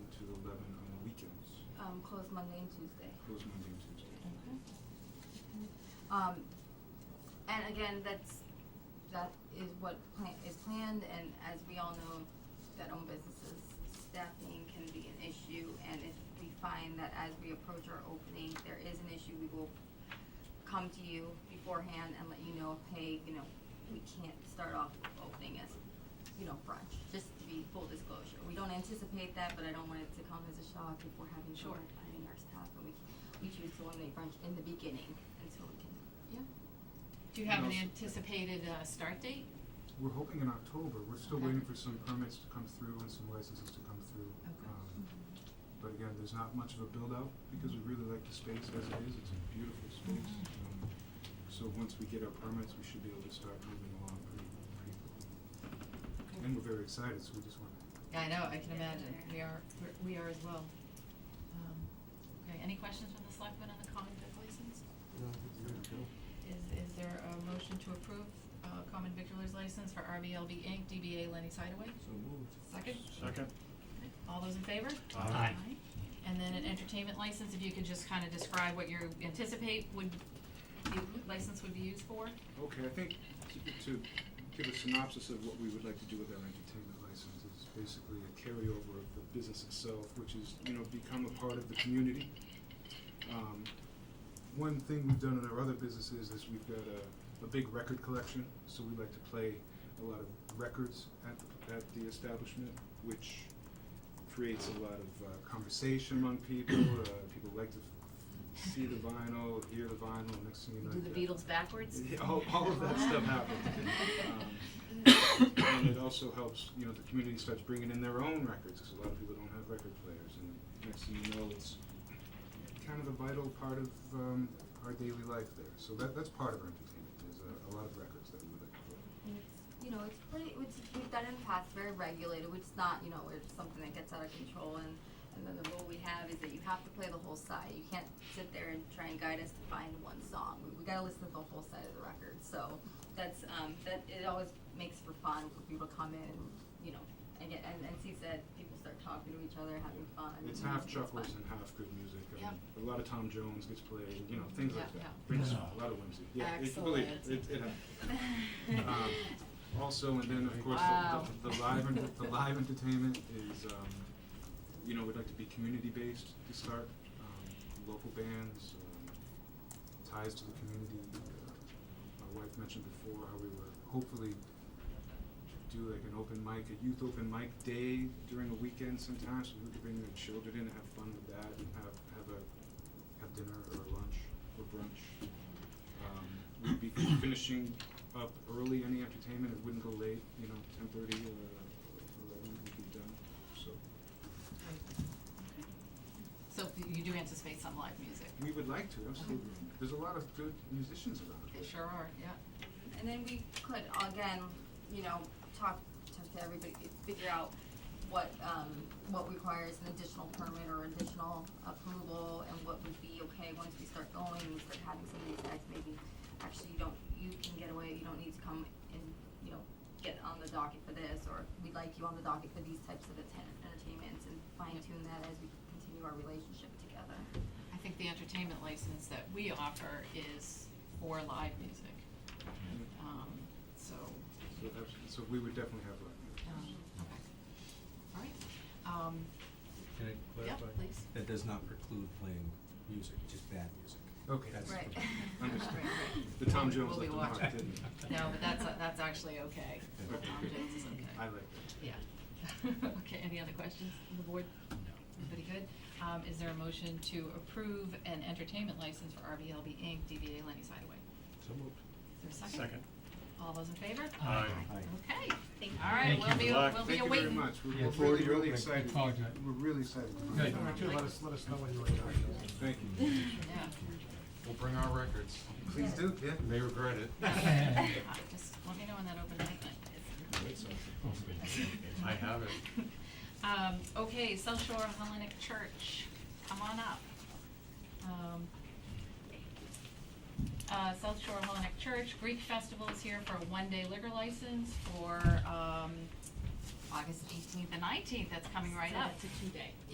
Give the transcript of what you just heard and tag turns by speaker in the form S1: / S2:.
S1: closed Um, Monday and Tuesday.
S2: Close Monday and Tuesday.
S1: Um, and again, that's, that is what plan, is planned, and as we all know, that own businesses, staffing can be an issue, and if we find that as we approach our opening, there is an issue, we will come to you beforehand and let you know, hey, you know, we can't start off opening as, you know, brunch, just to be full disclosure. We don't anticipate that, but I don't want it to come as a shock if we're having
S3: Sure.
S1: short planning our staff, and we, we choose to eliminate brunch in the beginning, and so we can, yeah.
S3: Do you have an
S2: No.
S3: anticipated, uh, start date?
S2: We're hoping in October, we're still
S3: Okay.
S2: waiting for some permits to come through and some licenses to come through.
S3: Okay.
S2: Um, But again, there's not much of a build out because we really like the space as it is, it's a beautiful space.
S3: Mm-hmm.
S2: Um, So once we get our permits, we should be able to start moving along pretty, pretty quickly. And we're very excited, so we just wanna,
S3: Yeah, I know, I can
S1: Yeah,
S3: imagine,
S1: there.
S3: we are, we're- we are as well. Um, okay, any questions from the selectmen on the common vic license?
S4: No, I think we're good to go.
S3: Is, is there a motion to approve, uh, common victualers license for RBLB Inc., DBA Lenny's Hideaway?
S4: So moved.
S3: Second?
S5: Second.
S3: All those in favor?
S5: Aye. Aye.
S3: And then an entertainment license, if you could just kinda describe what you anticipate would, the license would be used for?
S2: okay, I think to- to give a synopsis of what we would like to do with our entertainment license is basically a carryover of the business itself, which is, you know, become a part of the community. Um, one thing we've done in our other businesses is we've got a, a big record collection, so we like to play a lot of records at the, at the establishment, which creates a lot of uh, conversation among people. Uh, people like to f- see the vinyl, hear the vinyl. Next thing you know,
S3: Do the
S2: you've got-
S3: Beatles backwards?
S2: yeah, all, all of that stuff happens. Um, and it also helps, you know, the community starts bringing in their own records because a lot of people don't have record players. And next thing you know, it's kind of a vital part of um, our daily life there. So that, that's part of our entertainment. There's a, a lot of records that we would like to play.
S1: And it's, you know, it's pretty, it's, we've done it in the past, very regulated, it's not, you know, it's something that gets out of control and, and then the rule we have is that you have to play the whole side, you can't sit there and try and guide us to find one song, we, we gotta listen to the whole side of the record, so that's, um, that, it always makes for fun for people to come in and, you know, and get, and, and see that people start talking to each other, having fun.
S2: It's
S1: and
S2: half
S1: fun.
S2: chuckles and half good music. and A
S3: Yep.
S2: lot of Tom Jones gets played, you know, things like that.
S3: Yeah, yeah.
S2: Brings
S5: Yeah.
S2: a lot of whimsy. Yeah, it- believe it,
S3: Excellent.
S2: it, it happens. Um, also, and then of course,
S3: Wow.
S2: the, the, the live, ent- the live entertainment is, um, you know, we'd like to be community-based to start, um, local bands, um, ties to the community. Uh, My wife mentioned before how we were hopefully do like an open mic, a youth open mic day during a weekend sometimes, so we could bring the children in and have fun with that and have, have a, have dinner or lunch or brunch. Um, we'd be finishing up early any entertainment, it wouldn't go late, you know, ten thirty or eleven, we'd be done, so.
S3: So you do anticipate some live music?
S2: We would like to, absolutely. There's a lot of good musicians around here.
S3: They sure are, yeah.
S1: And then we could again, you know, talk, talk to everybody, figure out what, um, what requires an additional permit or additional approval and what would be okay once we start going, we start having some of these acts, maybe actually you don't, you can get away, you don't need to come and, you know, get on the docket for this, or we'd like you on the docket for these types of atten- entertainments and fine tune that as we continue our relationship together.
S3: I think the entertainment license that we offer is for live music. Um, so,
S2: So abs- so we would definitely have live music.
S3: um, okay. All right. Um,
S4: Can I
S3: Yeah,
S4: clarify?
S3: please.
S4: That does not preclude playing music, just bad music.
S2: Okay.
S4: That's
S1: Right.
S2: Understood.
S3: Right, right.
S2: The Tom
S3: Oh. We'll-
S2: Jones
S3: we'll be
S2: left a mark,
S3: watching.
S2: didn't he?
S3: no, but that's, that's actually okay.
S2: Yeah.
S3: Tom Jones is okay.
S2: I like that.
S3: Yeah. Okay, any other questions on the board? No. Everybody good? Um, is there a motion to approve an entertainment license for RBLB Inc., DBA Lenny's Hideaway?
S4: So moved.
S3: Is there a second?
S5: Second.
S3: All those in favor?
S5: Aye.
S4: Aye.
S3: Okay.
S6: Thank
S3: All right,
S5: Thank
S3: we'll
S5: you.
S3: be,
S5: Good luck.
S3: we'll be
S2: Thank you very
S3: awaiting.
S2: much,
S5: Yeah,
S2: we're
S5: it's
S2: we're really,
S5: really
S2: really
S5: open.
S2: excited.
S5: Talk to it.
S2: We're really excited. to find
S5: Good,
S2: out.
S5: you too, let us, let us know when you're ready.
S2: Thank you.
S3: Yeah.
S7: We'll bring our records.
S2: Please do, yeah.
S7: They regret it.
S3: Uh, Just let me know when that open mic night is.
S7: I have it.
S3: Um, okay, South Shore Hellenic Church, come on up. Um, uh, South Shore Hellenic Church, Greek Festival is here for a one-day liquor license for, um, August eighteenth and nineteenth, that's coming right up.
S6: It's a two-day.